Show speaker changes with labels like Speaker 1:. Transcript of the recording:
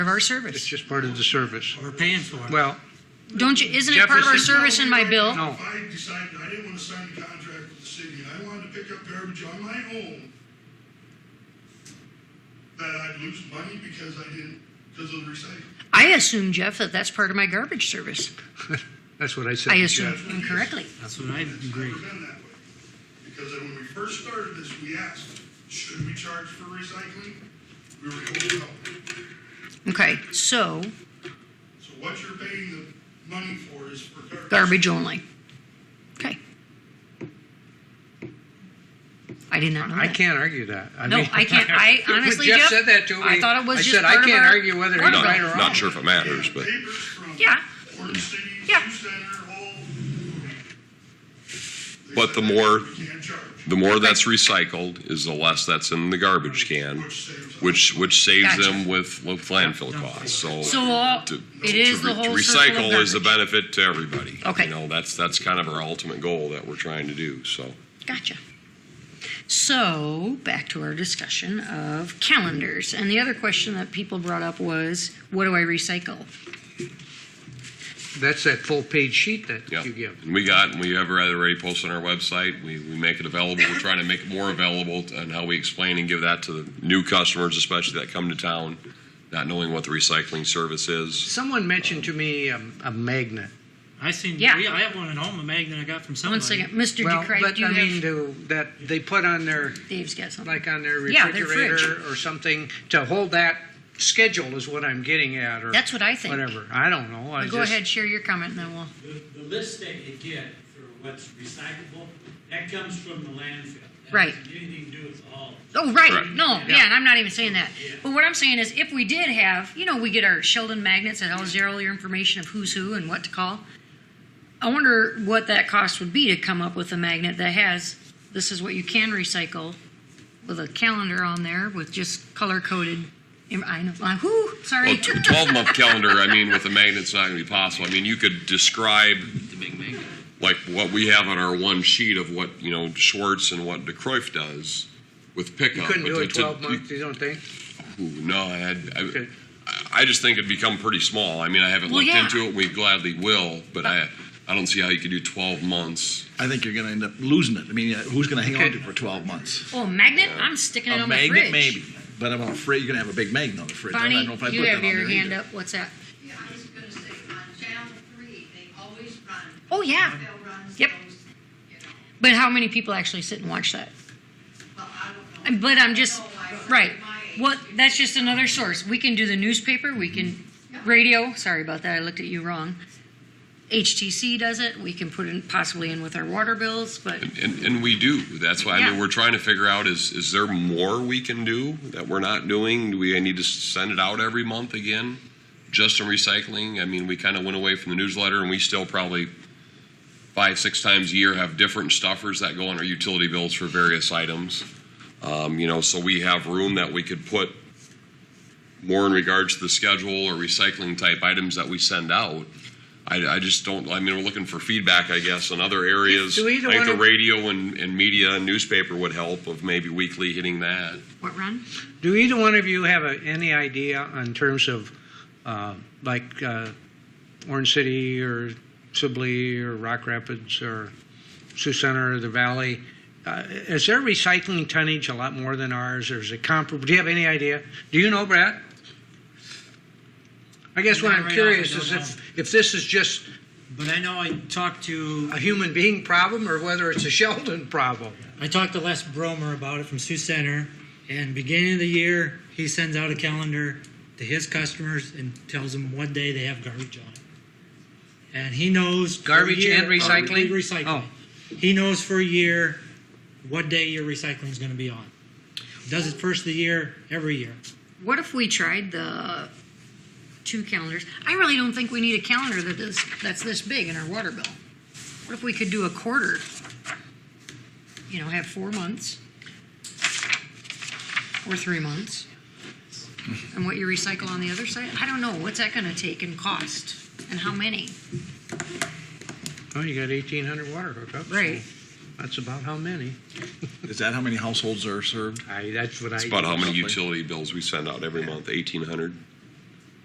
Speaker 1: of our
Speaker 2: It's
Speaker 1: service.
Speaker 2: just part of the service.
Speaker 3: We're paying for it.
Speaker 2: Well,
Speaker 1: Don't you, isn't it part of our
Speaker 2: Jefferson-
Speaker 1: service in my bill?
Speaker 2: no.
Speaker 4: If I decided I didn't want to sign a contract with the city and I wanted to pick up garbage on my own, that I'd lose money because I didn't, because of the recycling.
Speaker 1: I assume, Jeff, that that's part of my garbage service.
Speaker 2: That's what I said.
Speaker 1: I
Speaker 2: to
Speaker 1: assume
Speaker 2: Jeff.
Speaker 1: incorrectly.
Speaker 3: That's what I
Speaker 4: It's
Speaker 3: agree.
Speaker 4: never been that way. Because when we first started this, we asked, should we charge for recycling? We were told no.
Speaker 1: Okay, so
Speaker 4: So what you're paying the money for is for garbage.
Speaker 1: garbage only. Okay. I did not know
Speaker 2: I
Speaker 1: that.
Speaker 2: can't argue that. I
Speaker 1: No,
Speaker 2: mean,
Speaker 1: I can't. I
Speaker 2: when
Speaker 1: honestly,
Speaker 2: Jeff
Speaker 1: Jeff,
Speaker 2: said that to me.
Speaker 1: I thought it was
Speaker 2: I
Speaker 1: just
Speaker 2: said, I
Speaker 1: part of
Speaker 2: can't
Speaker 1: our-
Speaker 2: argue whether it's
Speaker 1: part of
Speaker 2: right
Speaker 1: our-
Speaker 2: or wrong.
Speaker 5: Not sure if it matters, but
Speaker 4: Papers from
Speaker 1: Yeah.
Speaker 4: Orange City,
Speaker 1: Yeah.
Speaker 4: Sioux Center, all. They
Speaker 5: But the
Speaker 4: said,
Speaker 5: more-
Speaker 4: "We can't charge,"
Speaker 5: the more that's recycled is the less that's in the garbage can,
Speaker 4: which saves us.
Speaker 5: which which saves
Speaker 1: Gotcha.
Speaker 5: them with with landfill costs. So,
Speaker 1: So all,
Speaker 5: to,
Speaker 1: it is
Speaker 5: to,
Speaker 1: the
Speaker 5: re- to
Speaker 1: whole circle of
Speaker 5: recycle is a
Speaker 1: garbage.
Speaker 5: benefit to everybody.
Speaker 1: Okay.
Speaker 5: You know, that's that's kind of our ultimate goal that we're trying to do. So
Speaker 1: Gotcha. So back to our discussion of calendars, and the other question that people brought up was, what do I recycle?
Speaker 2: That's that full page sheet that
Speaker 5: yeah.
Speaker 2: you give.
Speaker 5: And we got and we have already posted on our website. We we make it available. We're trying to make it more available t- and how we explain and give that to the new customers, especially that come to town, not knowing what the recycling service is.
Speaker 2: Someone mentioned to me um, a magnet.
Speaker 3: I seen,
Speaker 1: Yeah.
Speaker 3: we- I have one at home, a magnet I got from somebody.
Speaker 1: One second, Mr.
Speaker 2: Well,
Speaker 1: DeCray,
Speaker 2: but
Speaker 1: do you
Speaker 2: I mean,
Speaker 1: have,
Speaker 2: to, that they put on their
Speaker 1: Dave's got something.
Speaker 2: like uh, on their
Speaker 1: Yeah, their
Speaker 2: refrigerator or something to hold that schedule is what I'm getting at, or
Speaker 1: That's what I think.
Speaker 2: whatever. I don't know. I
Speaker 1: Go
Speaker 2: just,
Speaker 1: ahead, share your comment, and then we'll.
Speaker 6: The, the list that you get for what's recyclable, that comes from the landfill. That
Speaker 1: Right.
Speaker 6: has Anything to do with all.
Speaker 1: Oh, right.
Speaker 5: Correct.
Speaker 1: No, yeah.
Speaker 2: Yeah.
Speaker 1: and I'm not even saying that.
Speaker 6: Yeah.
Speaker 1: But what I'm saying is, if we did have, you know, we get our Sheldon magnets that tells you all your information of who's who and what to call. I wonder what that cost would be to come up with a magnet that has this is what you can recycle with a calendar on there with just color coded. I know. Uh, whoo, sorry.
Speaker 7: Oh,
Speaker 5: Well, t- 12 month calendar, I mean, with a magnet's not going to be possible. I mean, you could describe like what we have on our one sheet of what, you know, Schwartz and what DeCroif does with pickup.
Speaker 2: You couldn't
Speaker 5: but
Speaker 2: do
Speaker 5: to-
Speaker 2: it
Speaker 5: to-
Speaker 2: 12 months. You don't think?
Speaker 5: Ooh, No, I had. I,
Speaker 2: Okay.
Speaker 5: I just think it'd become pretty small. I mean, I haven't
Speaker 1: Well,
Speaker 5: looked
Speaker 1: yeah. Uh,
Speaker 5: into it. We gladly will, but I, I don't see how you could do 12 months.
Speaker 7: I think you're going to end up losing it. I mean, uh, who's going to hang on to it for 12 months?
Speaker 1: oh, magnet? I'm sticking it
Speaker 7: a
Speaker 1: on my
Speaker 7: magnet,
Speaker 1: fridge.
Speaker 7: maybe. But I'm afraid you're going to have a big magnet on the fridge. I don't
Speaker 1: Bonnie,
Speaker 7: know if I
Speaker 1: you
Speaker 7: put
Speaker 1: have
Speaker 7: that on
Speaker 1: your
Speaker 7: there
Speaker 1: hand
Speaker 7: either.
Speaker 1: up. What's that?
Speaker 8: Yeah, I was gonna say, on channel three, they always run.
Speaker 1: Oh, yeah.
Speaker 8: They'll run those, you
Speaker 1: Yep.
Speaker 8: know,
Speaker 1: But how many people actually sit and watch that?
Speaker 8: well, I don't know.
Speaker 1: But I'm just,
Speaker 8: No, I-
Speaker 1: right,
Speaker 8: my age,
Speaker 1: well,
Speaker 8: you
Speaker 1: that's just another source. We can do the newspaper, we can, radio, sorry about that, I looked at you wrong. HTC does it, we can put in, possibly in with our water bills, but,
Speaker 5: And, and we do. That's why I
Speaker 1: Yeah.
Speaker 5: mean, we're trying to figure out is, is there more we can do that we're not doing? Do we need to send it out every month again? Just in recycling? I mean, we kind of went away from the newsletter and we still probably five, six times a year have different stuffers that go on our utility bills for various items. Um, you know, so we have room that we could put more in regards to the schedule or recycling type items that we send out. I, I just don't, I mean, we're looking for feedback, I guess, on other areas.
Speaker 2: Do either
Speaker 5: I think
Speaker 2: one
Speaker 5: the
Speaker 2: of-
Speaker 5: radio and, and media and newspaper would help of maybe weekly hitting that.
Speaker 1: what, Ron?
Speaker 2: Do either one of you have a, any idea in terms of uh, like uh, Orange City or Sibley or Rock Rapids or Sioux Center or the Valley? Uh, is their recycling tonnage a lot more than ours, or is it comparable? Do you have any idea? Do you know, Brad? I guess what
Speaker 3: Not
Speaker 2: I'm
Speaker 3: right off, I
Speaker 2: curious
Speaker 3: don't
Speaker 2: is
Speaker 3: know.
Speaker 2: if, if this is just
Speaker 3: But I know I talked to,
Speaker 2: a human being problem or whether it's a Sheldon problem.
Speaker 3: I talked to Les Bromer about it from Sioux Center, and beginning of the year, he sends out a calendar to his customers and tells them what day they have garbage on. And he knows. for a
Speaker 2: Garbage
Speaker 3: year- Oh,
Speaker 2: and recycling?
Speaker 3: Recycling.
Speaker 2: Oh.
Speaker 3: He knows for a year what day your recycling is gonna be on. Does it first of the year, every year.
Speaker 1: What if we tried the two calendars? I really don't think we need a calendar that is, that's this big in our water bill. What if we could do a quarter? You know, have four months or three months? And what you recycle on the other side? I don't know. What's that going to take and cost? And how many?
Speaker 2: Oh, you got 1,800 water hookups. so
Speaker 1: Right.
Speaker 2: That's about how many?
Speaker 7: Is that how many households are served?
Speaker 2: I, that's what
Speaker 5: It's
Speaker 2: I.
Speaker 5: about how many
Speaker 7: Roughly.
Speaker 5: utility bills we send out every month, 1,800.